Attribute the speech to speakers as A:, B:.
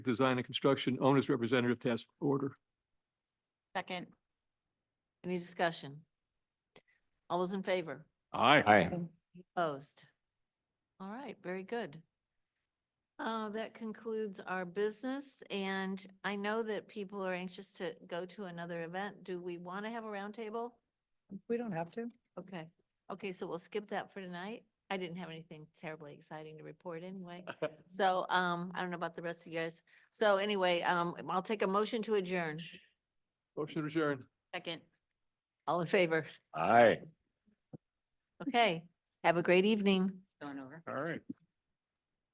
A: Design and Construction Owners Representative Task Order.
B: Second.
C: Any discussion? All those in favor?
A: Aye.
D: Aye.
C: Opposed? All right, very good. Uh, that concludes our business and I know that people are anxious to go to another event. Do we want to have a roundtable?
B: We don't have to.
C: Okay, okay, so we'll skip that for tonight. I didn't have anything terribly exciting to report anyway. So, um, I don't know about the rest of you guys. So anyway, um, I'll take a motion to adjourn.
A: Motion to adjourn.
B: Second.
C: All in favor?
D: Aye.
C: Okay, have a great evening.
B: Going over.
A: All right.